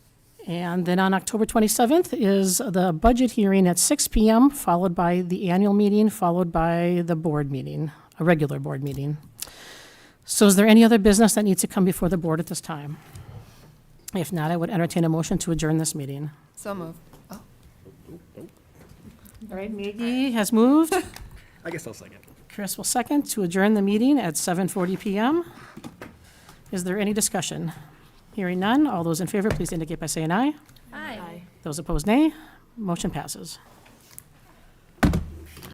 And then on October 27th is the budget hearing at 6 PM, followed by the annual meeting, followed by the board meeting, a regular board meeting. So is there any other business that needs to come before the board at this time? If not, I would entertain a motion to adjourn this meeting. So moved. All right, Maggie has moved. I guess I'll second. Chris will second to adjourn the meeting at 7:40 PM. Is there any discussion? Hearing none, all those in favor, please indicate by saying aye. Aye. Those opposed, nay. Motion passes.